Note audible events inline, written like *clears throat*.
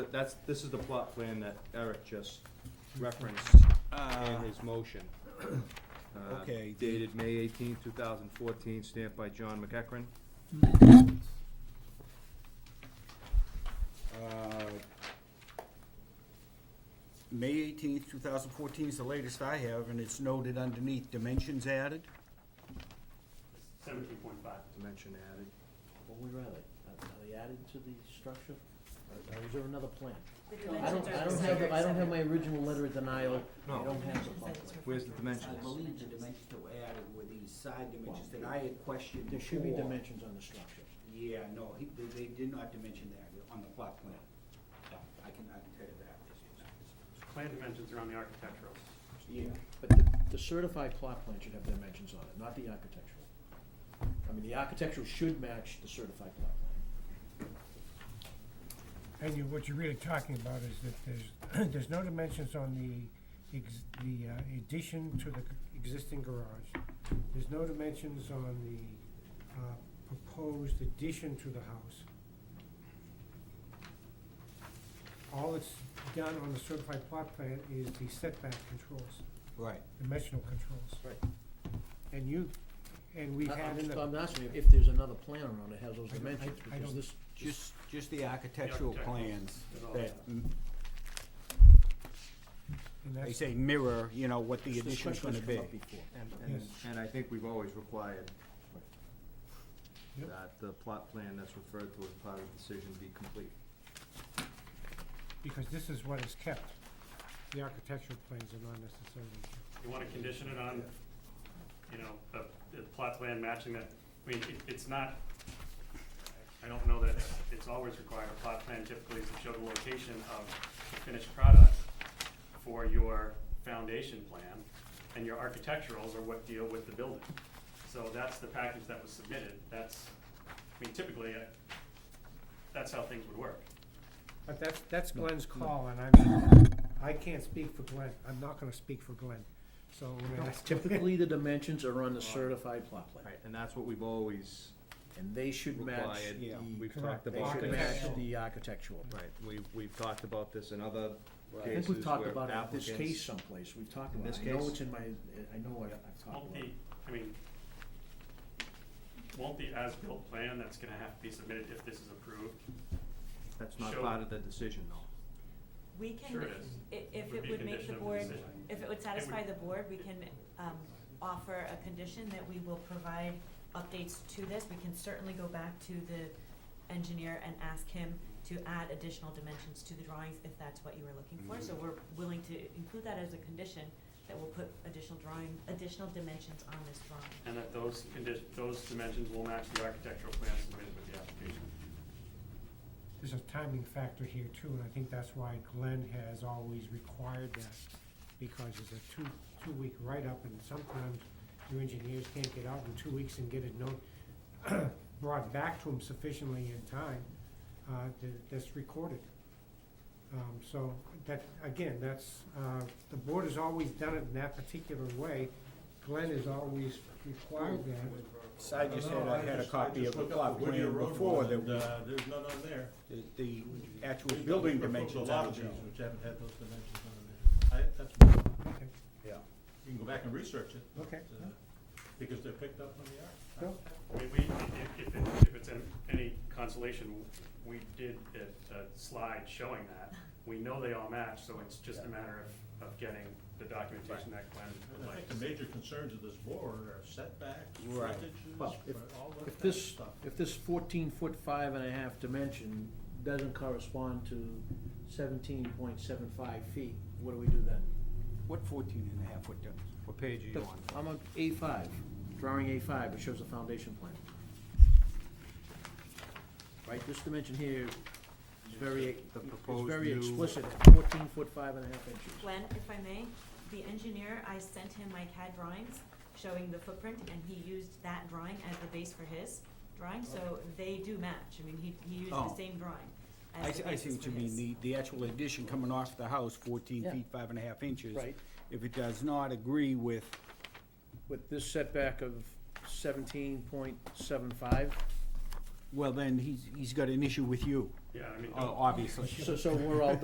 but that's, this is the plot plan that Eric just referenced in his motion. Uh, Ah. Okay, the- Dated May eighteenth, two thousand fourteen, stamped by John McEachran. Uh, May eighteenth, two thousand fourteen is the latest I have, and it's noted underneath, dimensions added. Seventeen point five. Dimension added. What would rather, are are they added to the structure, or or is there another plan? The I dimensions don't, are I don't the have, the- I don't have same. my original letter of denial, I No. don't have the Dimensions plot that it's plan. Where's the I dimensions? believe the dimensions that were added were these side dimensions that I had questioned There should be before. dimensions on the structure. Yeah, no, he, they, they did not dimension that on the plot plan. No, I can, I can tell you that. Plan dimensions are on the architecturals. Yeah, But the, the certified plot plan should have dimensions on it, not the architectural. I mean, the architectural should match the certified plot plan. And you, what you're really talking about is that there's, *clears throat* there's no dimensions on the, ex- the uh, addition to the c- existing garage. There's no dimensions on the, uh, proposed addition to the house. All it's done on the certified plot plan is the setback controls, right. dimensional controls. Right. And you, and we've I- had in I'm, the, I'm asking you, if there's another plan around it has those I don't- I- dimensions, I because don't- this, just, Just, just the architectural architecturals. plans Is all that, that. mm, and they that's, say mirror, you know, what the this addition's question gonna has come be. *laughs* up before. And, and, Yes. and I think we've always required Yep. that the plot plan that's referred to as part of the decision be complete. because this is what is kept. The architectural plans are not necessarily kept. You wanna condition it on, you know, the, the plot plan matching that, I mean, it, it's not, I don't know that it's always required, a plot plan typically is to show the location of the finished product for your foundation plan, and your architecturals are what deal with the building. So that's the package that was submitted, that's, I mean, typically, uh, that's how things would work. But that's, that's Glenn's call, and I mean, I can't speak for Glenn, I'm not gonna speak for Glenn, so. I mean, that's- Typically, the dimensions are on the certified plot plan, Right, and that's what we've always and they should match required. the, We've Correct. talked they about should this. match Architectural. the architectural. Right, we, we've talked about this in other I think cases we've talked where about it, in this applicants- case someplace, we've talked In about it, this I know case? it's in my, I know I've, I've talked Won't about the, it. I mean, won't the as-built plan that's gonna have to be submitted if this is approved? That's not Show- part of the decision though. We can, Sure it is. i- if Would it be a would make condition the of the board, decision. if it would satisfy the board, we can, um, offer a condition that we will provide updates to this. We can certainly go back to the engineer and ask him to add additional dimensions to the drawings if that's what you were looking for. Mm-hmm. So we're willing to include that as a condition, that we'll put additional drawing, additional dimensions on this drawing. And that those condition, those dimensions will match the architectural plan submitted with the application. There's a timing factor here too, and I think that's why Glenn has always required that, because it's a two, two-week write-up, and sometimes your engineers can't get out in two weeks and get it note, *clears throat* brought back to them sufficiently in time, uh, to- that's recorded. Um, so, that, again, that's, uh, the board has always done it in that particular way, Glenn has always required that. So I just had, No, I had a just- I copy just of the looked up plot the Whittier plan Road before one, that and, we- uh, There's none on there. the, the actual We've got- building we've got dimensions A lot on of the these job. which haven't had those dimensions on them. I, that's, Yeah. you can go back and research it. Okay. uh, Because they're picked up on the art. Bill? I mean, we, if, if, it- if it's an- any consolation, we did a, a slide showing that. We know they all match, so it's just a matter of, of getting the documentation that Glenn would And I like. think the major concerns of this board are setbacks, Right. frontages, Well, if- all that If kind of this, stuff. if this fourteen foot five and a half dimension doesn't correspond to seventeen point seven five feet, what do we do then? What fourteen and a half foot does? What page are you on? I'm on A five, drawing A five, it shows a foundation plan. Right, this dimension here is very, The it's proposed very new- explicit, it's fourteen foot five and a half inches. Glenn, if I may, the engineer, I sent him my CAD drawings showing the footprint, and he used that drawing as the base for his drawing, so they do match. I mean, he, he used the Oh. same drawing I, as see- the I see basis what for you mean, his. the, the actual addition coming off the house, fourteen Yeah. feet, five and a half inches. Right. If it does not agree with, With this setback of seventeen point seven five, well, then he's, he's got an issue with you. Yeah, I mean. obviously. So, so we're all